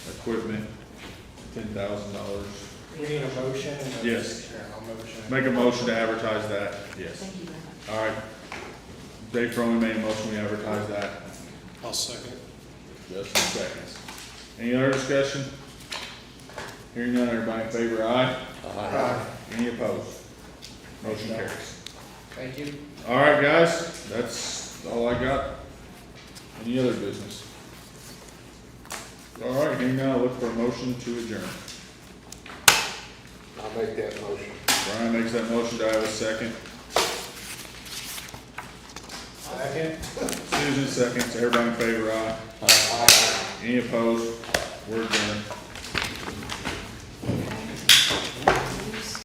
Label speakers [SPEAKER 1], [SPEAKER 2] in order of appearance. [SPEAKER 1] equipment, ten thousand dollars.
[SPEAKER 2] We need a motion and a.
[SPEAKER 1] Yes.
[SPEAKER 2] Yeah, I'll motion.
[SPEAKER 1] Make a motion to advertise that, yes.
[SPEAKER 3] Thank you very much.
[SPEAKER 1] All right. Dave Froman made a motion, we advertise that.
[SPEAKER 2] I'll second.
[SPEAKER 1] Justin seconds. Any other discussion? Hearing none, everybody in favor, aye?
[SPEAKER 2] Aye.
[SPEAKER 1] Any opposed? Motion carries.
[SPEAKER 2] Thank you.
[SPEAKER 1] All right, guys, that's all I got. Any other business? All right, hearing none, I'll look for a motion to adjourn.
[SPEAKER 4] I'll make that motion.
[SPEAKER 1] Brian makes that motion, do I have a second?
[SPEAKER 2] Second.
[SPEAKER 1] Susan seconds, everybody in favor, aye? Any opposed? We're adjourned.